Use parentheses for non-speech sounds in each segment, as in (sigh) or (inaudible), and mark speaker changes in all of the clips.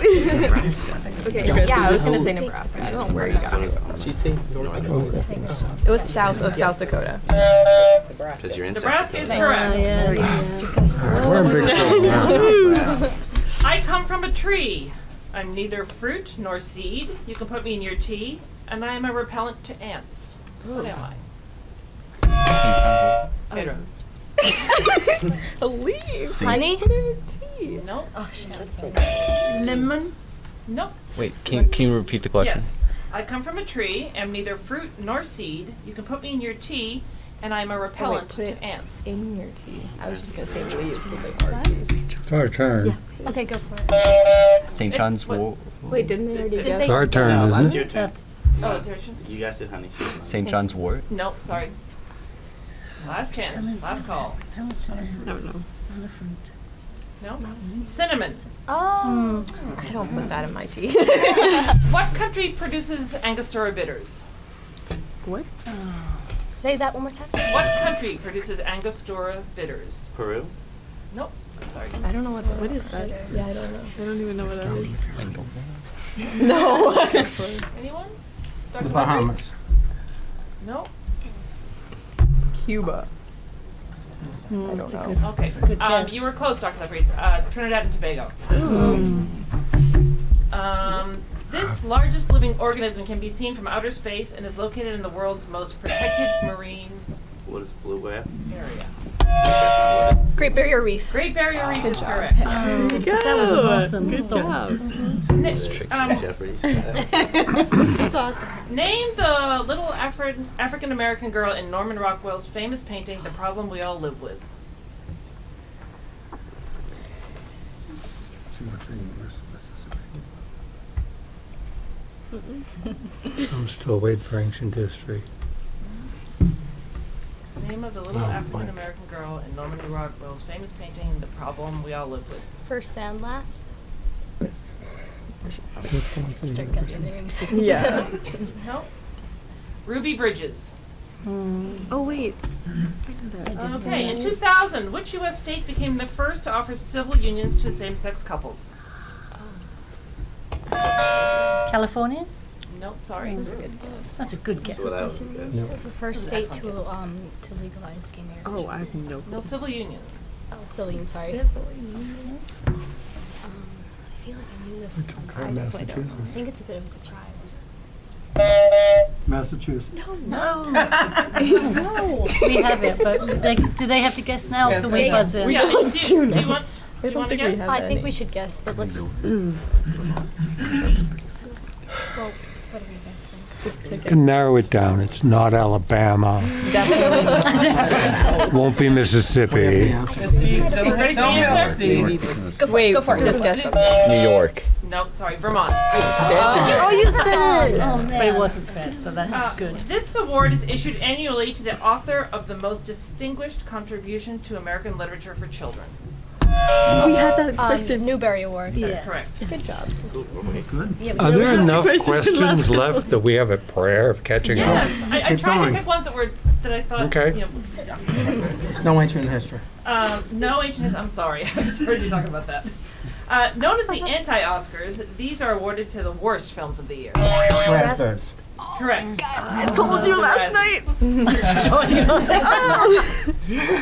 Speaker 1: She's Nebraska.
Speaker 2: Okay,
Speaker 1: South
Speaker 2: yeah, I was gonna
Speaker 1: Dakota.
Speaker 2: say Nebraska. I don't
Speaker 1: Where
Speaker 2: know where
Speaker 1: you
Speaker 2: you got it.
Speaker 1: got? She say North Dakota.
Speaker 2: It was south of South Dakota.
Speaker 1: Because you're in South
Speaker 3: Nebraska is
Speaker 1: Dakota.
Speaker 4: Oh,
Speaker 3: correct.
Speaker 5: We're in
Speaker 4: (laughs)
Speaker 5: big trouble.
Speaker 2: (laughs)
Speaker 3: I come from a tree. I'm neither fruit nor seed. You can put me in your tea, and I am a repellent to ants. What am I? Pedro.
Speaker 2: A leaf.
Speaker 4: Honey?
Speaker 3: No.
Speaker 4: Oh, shit.
Speaker 3: Lemon. No.
Speaker 6: Wait, can, can you repeat the question?
Speaker 3: Yes. I come from a tree. Am neither fruit nor seed. You can put me in your tea, and I am a repellent
Speaker 2: put it
Speaker 3: to ants.
Speaker 2: In your tea. I was just gonna say leaves because they are leaves.
Speaker 5: It's our turn.
Speaker 4: Okay, go for it.
Speaker 6: St.
Speaker 3: It's
Speaker 6: John's
Speaker 3: what-
Speaker 6: Wo-
Speaker 2: Wait, didn't they already
Speaker 3: Did
Speaker 2: guess?
Speaker 5: It's our turn,
Speaker 1: That's
Speaker 5: isn't
Speaker 1: your
Speaker 5: it?
Speaker 1: turn.
Speaker 3: Oh, is there? a-
Speaker 1: You guys it, honey.
Speaker 6: St. John's Wort.
Speaker 3: No, sorry. Last chance. Last call. No. Cinnamon.
Speaker 4: Oh.
Speaker 2: I don't put that in my tea.
Speaker 3: What country produces Angostura bitters?
Speaker 4: Say that one more time.
Speaker 3: What country produces Angostura bitters?
Speaker 1: Peru?
Speaker 3: Nope. Sorry.
Speaker 2: I don't know what. What is that? Yeah, I don't know.
Speaker 3: Anyone? Dr. Humphrey?
Speaker 5: Bahamas.
Speaker 3: No.
Speaker 2: Cuba. I don't know.
Speaker 3: Okay. Um, you were close, Dr. Lepreet. Uh, Trinidad and Tobago. Um, this largest living organism can be seen from outer space and is located in the world's most protected marine
Speaker 1: What is blue whale?
Speaker 3: area.
Speaker 1: That's not what
Speaker 4: Great Barrier Reef.
Speaker 3: Great Barrier Reef is correct.
Speaker 4: Um,
Speaker 7: That was awesome. Good
Speaker 3: Na-
Speaker 1: it's tricky.
Speaker 3: um,
Speaker 1: Jeopardy's.
Speaker 3: (laughs)
Speaker 4: That's awesome.
Speaker 3: name the little Afri- African American girl in Norman Rockwell's famous painting, The Problem We All Live With.
Speaker 5: I'm still waiting for ancient history.
Speaker 3: Name of the little
Speaker 5: Oh,
Speaker 3: African
Speaker 5: blank.
Speaker 3: American girl in Norman Rockwell's famous painting, The Problem We All Live With.
Speaker 4: First and last. Start guessing names. (laughs)
Speaker 2: Yeah.
Speaker 3: No. Ruby Bridges.
Speaker 7: Oh, wait.
Speaker 3: Okay, in 2000, which U.S. state became the first to offer civil unions to same sex couples?
Speaker 7: California?
Speaker 3: No, sorry.
Speaker 2: Mm-hmm.
Speaker 7: That's a good guess.
Speaker 1: So that was good.
Speaker 4: The first state to, um, to legalize gay marriage.
Speaker 7: Oh, I have no.
Speaker 3: No civil unions.
Speaker 4: Oh, Cillian, sorry. Um, I feel like I knew this at some point. I think it's a bit of a surprise.
Speaker 5: Massachusetts.
Speaker 7: We have it, but they, do they have to guess now? or Can we buzz
Speaker 2: (laughs)
Speaker 7: in?
Speaker 3: Yeah, do, you- do you want, do you
Speaker 2: don't think
Speaker 3: want to
Speaker 2: we
Speaker 3: guess?
Speaker 2: have-
Speaker 4: I think we should guess, but let's. (clears throat) Well, what do you guys think?
Speaker 5: You can narrow it down. It's not
Speaker 3: (laughs)
Speaker 5: Alabama.
Speaker 2: Definitely.
Speaker 5: Won't be Mississippi.
Speaker 3: Ready for the answer?
Speaker 2: Wait, just guess something.
Speaker 6: New York.
Speaker 3: No, sorry, Vermont. Uh,
Speaker 4: Oh, you said it! Oh, man.
Speaker 7: But it wasn't fair, so that's good.
Speaker 3: This award is issued annually to the author of the most distinguished contribution to American literature for children.
Speaker 4: Um, Newberry Award.
Speaker 7: Yeah.
Speaker 3: Correct.
Speaker 5: Are there enough questions left that we have a prayer of catching up?
Speaker 3: Yes, I, I tried to pick ones that were, that I thought,
Speaker 5: Okay.
Speaker 3: you know,
Speaker 8: No ancient history.
Speaker 3: Um, no ancient history. I'm sorry. (laughs) I was already talking about that. Uh, known as the anti Oscars, these are awarded to the worst films of the year.
Speaker 8: Raspberries.
Speaker 3: Correct. I told you last night. (laughs)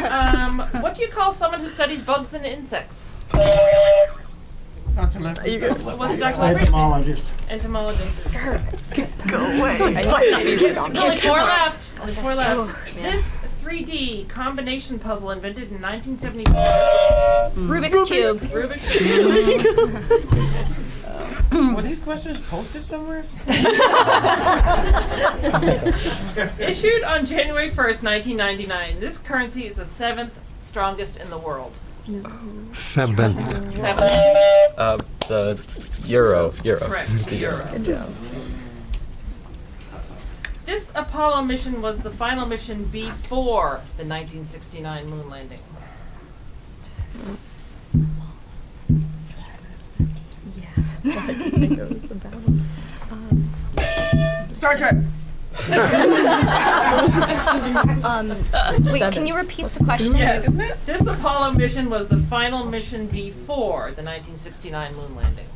Speaker 3: um, what do you call someone who studies bugs and insects?
Speaker 8: Dr. Lefferts.
Speaker 3: What was it, Dr. Lambert?
Speaker 8: Entomologist.
Speaker 3: Entomologist. Go away. Only four left. Only four left. This 3D combination puzzle invented in 1974
Speaker 4: Rubik's Cube.
Speaker 3: Rubik's Cube. (laughs)
Speaker 8: Were these questions posted somewhere?
Speaker 3: Issued on January 1st, 1999, this currency is the seventh strongest in the world.
Speaker 5: (laughs) Seventh.
Speaker 3: Seventh,
Speaker 6: Uh, the Euro. Euro.
Speaker 3: correct, the euro. This Apollo mission was the final mission before the 1969 moon landing.
Speaker 4: (laughs)
Speaker 5: (laughs)
Speaker 4: (laughs) Um, wait, can you repeat the question?
Speaker 3: This Apollo mission was the final mission before the 1969 moon landing.